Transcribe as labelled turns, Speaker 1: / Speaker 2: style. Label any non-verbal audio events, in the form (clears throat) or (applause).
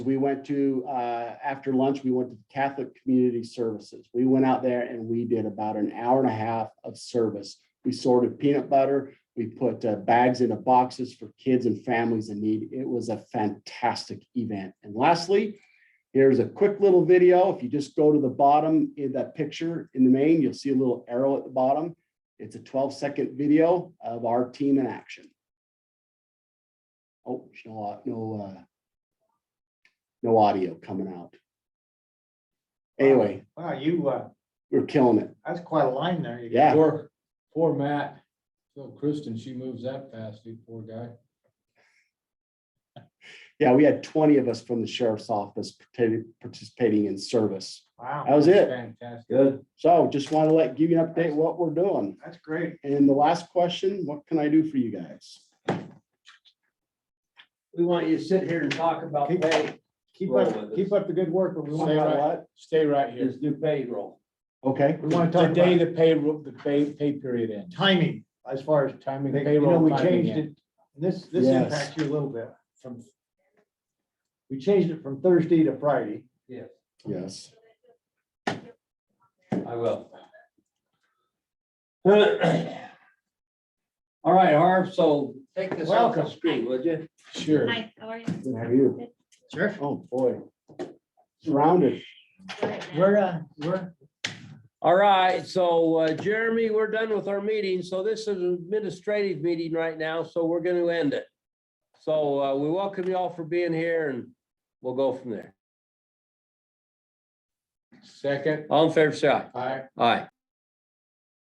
Speaker 1: We went to, uh, after lunch, we went to Catholic Community Services. We went out there and we did about an hour and a half of service. We sorted peanut butter. We put uh, bags into boxes for kids and families in need. It was a fantastic event. And lastly, here's a quick little video. If you just go to the bottom in that picture in the main, you'll see a little arrow at the bottom. It's a 12 second video of our team in action. Oh, no, uh, no, uh, no audio coming out. Anyway,
Speaker 2: Wow, you, uh,
Speaker 1: we're killing it.
Speaker 2: that's quite a line there. You-
Speaker 1: Yeah.
Speaker 3: Poor, poor Matt. So Kristen, she moves that fast, you poor guy.
Speaker 1: Yeah, we had twenty of us from the sheriff's office parti- participating in service. That
Speaker 2: Wow,
Speaker 1: was it.
Speaker 3: Fantastic.
Speaker 4: Good.
Speaker 1: So just want to let, give you an update what we're doing.
Speaker 2: that's great.
Speaker 1: And the last question, what can I do for you guys?
Speaker 4: We want you to sit here and talk about
Speaker 2: Keep-
Speaker 4: pay,
Speaker 2: Keep
Speaker 4: Roll
Speaker 2: up,
Speaker 4: with
Speaker 2: keep up the good work. but We
Speaker 1: Say
Speaker 2: want,
Speaker 1: what?
Speaker 3: Stay right here.
Speaker 4: his new payroll.
Speaker 1: Okay,
Speaker 2: we want to
Speaker 3: The
Speaker 2: talk
Speaker 3: day
Speaker 2: about
Speaker 3: the payroll, the pay, pay period ends,
Speaker 2: timing as far as,
Speaker 3: timing
Speaker 2: you know,
Speaker 3: payroll.
Speaker 2: we
Speaker 3: timing
Speaker 2: changed
Speaker 3: end.
Speaker 2: it. This, this
Speaker 1: Yes.
Speaker 2: impacts you a little bit.
Speaker 3: From,
Speaker 2: We changed it from Thursday to Friday.
Speaker 4: Yes,
Speaker 1: yes.
Speaker 4: I will. (clears throat) All right, Harv, so take this off the
Speaker 2: Welcome.
Speaker 4: screen, would you?
Speaker 3: sure.
Speaker 5: Hi, how are you?
Speaker 1: Good, how are you?
Speaker 2: Sure.
Speaker 1: Oh, boy. Surrounded.
Speaker 2: We're, uh, we're,
Speaker 4: All right, so uh, Jeremy, we're done with our meeting, so this is an administrative meeting right now, so we're gonna end it. So uh, we welcome you all for being here and we'll go from there.
Speaker 3: Second,
Speaker 4: All in favor, say aye.
Speaker 3: aye.
Speaker 4: Aye.